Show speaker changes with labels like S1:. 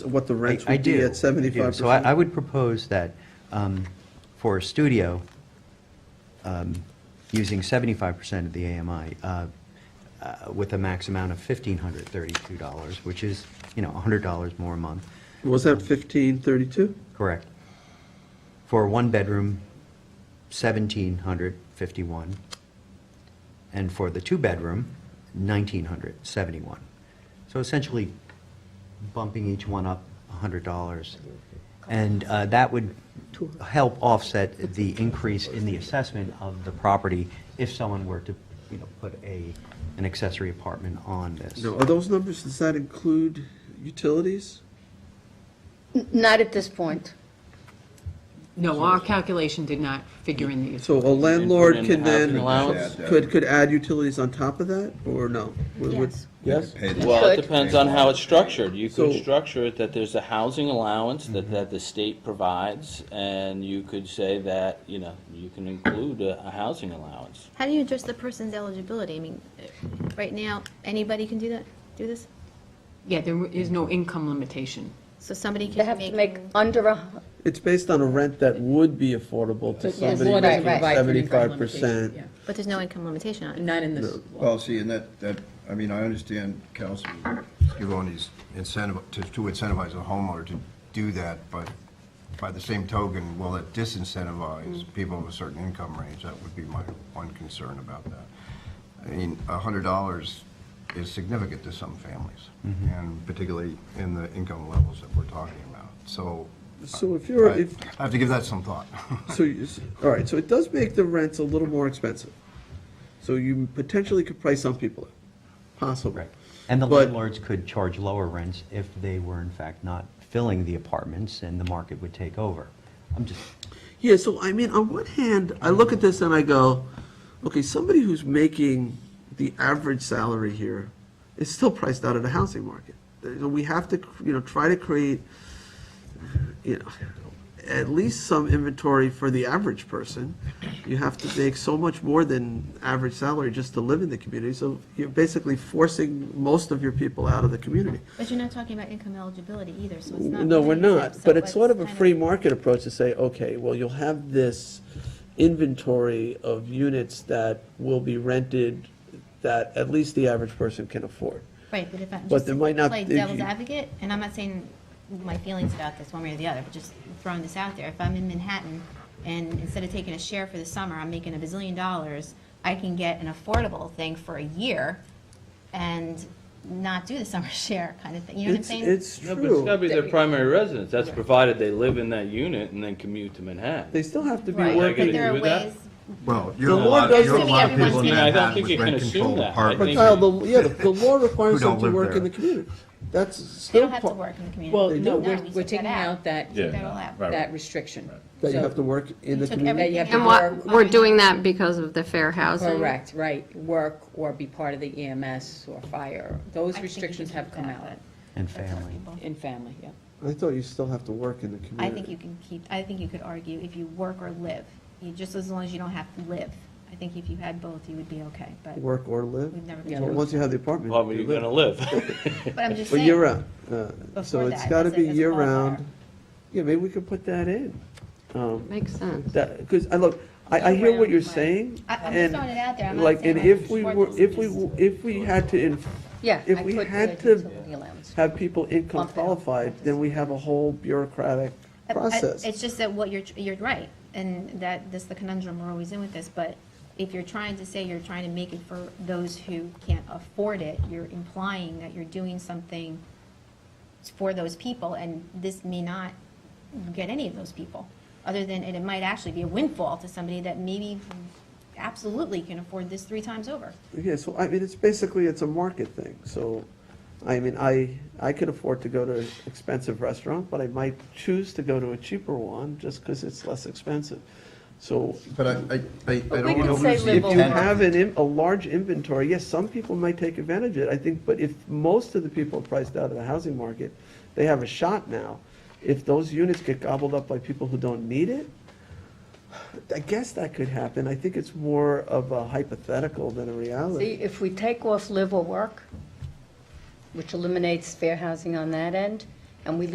S1: what the rents
S2: I- I
S1: would be
S2: do,
S1: at
S2: I
S1: seventy-five
S2: do. So I, I
S1: percent?
S2: would propose that um, for a studio, um, using seventy-five percent of the AMI, uh, uh, with a max amount of fifteen hundred thirty-two dollars, which is, you know, hundred dollars more a month,
S1: Was that fifteen thirty-two?
S2: correct? For a one-bedroom, seventeen hundred fifty-one, and for the two-bedroom, nineteen hundred seventy-one. So essentially bumping each one up hundred dollars. And uh, that would help offset the increase in the assessment of the property if someone were to, you know, put a, an accessory apartment on this.
S1: Now, are those numbers, does that include utilities?
S3: N- Not at this point.
S4: No, our calculation did not figure in these.
S1: So a landlord
S5: in
S1: can
S5: housing
S1: then,
S5: allowance?
S1: could, could add utilities on top of that, or no? Would- would-
S3: Yes.
S1: Yes?
S5: Well, it
S3: Could.
S5: depends on how it's structured. You could
S1: So-
S5: structure it that there's a housing allowance that, that the state provides, and you could say that, you know, you can include a, a housing allowance.
S6: How do you address the person's eligibility? I mean, uh, right now, anybody can do that, do this?
S4: Yeah, there is no income limitation.
S6: So somebody
S3: They
S6: can
S3: have to
S6: make.
S3: make under a,
S1: It's based on a rent that would be affordable to
S7: Yes,
S1: somebody
S3: what I
S1: making
S3: provide
S4: for income
S1: seventy-five
S4: limitation,
S1: percent.
S4: yeah.
S6: But there's no income limitation on it.
S4: Not in this
S7: Well, see, and that, that, I mean, I understand, Council, you're going these incentive, to to incentivize a homeowner to do that, but by the same token, will it
S1: Mm.
S7: disincentivize people of a certain income range? That would be my one concern about that. I mean, a hundred dollars is significant to some families,
S1: Mm-hmm.
S7: and particularly in the income levels that we're talking about. So
S1: So if you're,
S7: I
S1: if,
S7: I have to give that some thought.
S1: So, you s- all right, so it does make the rents a little more expensive. So you potentially could price some people out, possible.
S2: Right. And the
S1: But-
S2: landlords could charge lower rents if they were in fact not filling the apartments and the market would take over. I'm just,
S1: Yeah, so I mean, on one hand, I look at this and I go, okay, somebody who's making the average salary here is still priced out of the housing market. You know, We have to, you know, try to create, you know, at least some inventory for the average person. You have to make so much more than average salary just to live in the community. So you're basically forcing most of your people out of the community.
S6: But you're not talking about income eligibility either, so it's not.
S1: No, we're
S6: really exempt,
S1: not,
S6: so
S1: but it's sort of a
S6: kind
S1: free market approach to say, okay, well, you'll have this inventory of units that will be rented that at least the average person can afford.
S6: Right, but if I'm
S1: But there might
S6: just
S1: not-
S6: play
S1: if you-
S6: devil's advocate, and I'm not saying my feelings about this one way or the other, but just throwing this out there, if I'm in Manhattan and instead of taking a share for the summer, I'm making a bazillion dollars, I can get an affordable thing for a year and not do the summer share kind of thing, you know what I'm
S1: It's, it's
S6: saying?
S5: No, but it's gotta
S1: true.
S5: be their primary residence. That's provided they live in that unit and then commute to Manhattan.
S1: They still have to be
S6: Right,
S5: Like, I
S1: working.
S6: But there
S5: agree
S6: are
S5: with that.
S6: ways,
S7: Well, you
S1: The
S7: have
S1: law
S7: a lot, you
S1: doesn't-
S7: have a lot of people in
S6: I mean, I don't
S7: Manhattan
S5: think
S7: with
S5: you can
S7: rent controlled
S5: assume that. I
S1: But
S7: apartments.
S5: think-
S1: Kyle, the, yeah, the, the law requires
S7: Who don't
S1: them to
S7: live
S1: work in
S7: there.
S1: the community. That's
S6: they
S1: still
S6: don't have to
S1: part,
S6: work in the community.
S4: Well,
S1: They
S4: no,
S1: do.
S4: we're,
S6: No, we
S4: we're
S6: took
S4: taking
S6: that out.
S4: out that,
S8: Yeah.
S6: That'll happen.
S4: that restriction.
S1: that you
S4: So-
S1: have to work in the
S6: took
S1: community.
S4: That you have to
S9: And what,
S4: work,
S9: we're doing that because of the fair housing?
S4: correct, right, work or be part of the EMS or fire.
S6: I
S4: Those
S6: think you
S4: restrictions
S6: can do
S4: have come
S6: that,
S4: out
S2: and
S6: but that's not
S2: family.
S6: people.
S4: in family, yeah.
S1: I thought you still have to work in the community.
S6: I think you can keep, I think you could argue if you work or live, you, just as long as you don't have to live. I think if you had both, you would be okay, but
S1: Work or live.
S6: we've never been.
S4: Yeah.
S1: Well,
S6: sure.
S1: Once you have the apartment.
S5: Well, but
S1: you
S5: you're gonna
S1: live.
S5: live.
S6: But I'm just
S1: But
S6: saying.
S1: year-round, uh, so
S6: Before
S1: it's
S6: that,
S1: gotta
S6: as a-
S1: be
S6: as a
S1: year-round.
S6: qualifier.
S1: Yeah, maybe we could put that in. Um,
S9: Makes sense.
S1: That, because, I look, I, I hear what you're
S6: Year-round, right.
S1: saying.
S6: I- I'm just
S1: and
S6: throwing it out there. I'm not
S1: Like,
S6: saying
S1: and
S6: I'm
S1: if we
S6: for
S1: were,
S6: this,
S1: if we,
S6: just-
S1: w- if we had to in-
S3: yeah.
S1: If
S3: I
S1: we
S3: put the
S1: had to-
S3: utility allowance.
S1: have people income
S3: Bump it up.
S1: qualified, then we have a whole bureaucratic
S6: I- I-
S1: process.
S6: It's just that what you're, tr- you're right, and that, that's the conundrum we're always in with this, but if you're trying to say you're trying to make it for those who can't afford it, you're implying that you're doing something for those people, and this may not get any of those people, other than, and it might actually be a windfall to somebody that maybe absolutely can afford this three times over.
S1: Yeah, so I mean, it's basically, it's a market thing, so, I mean, I, I could afford to go to an expensive restaurant, but I might choose to go to a cheaper one just because it's less expensive. So
S7: But I, I- I, I don't
S3: could
S7: want to
S3: say
S7: lose the
S3: live
S1: if
S3: Well,
S1: you
S3: overnight.
S7: intent.
S1: have an, im- a large inventory, yes, some people might take advantage of it, I think, but if most of the people are priced out of the housing market, they have a shot now. If those units get gobbled up by people who don't need it, I guess that could happen. I think it's more of a hypothetical than a
S3: See,
S1: reality.
S3: if we take off live or work, which eliminates fair housing on that end, and we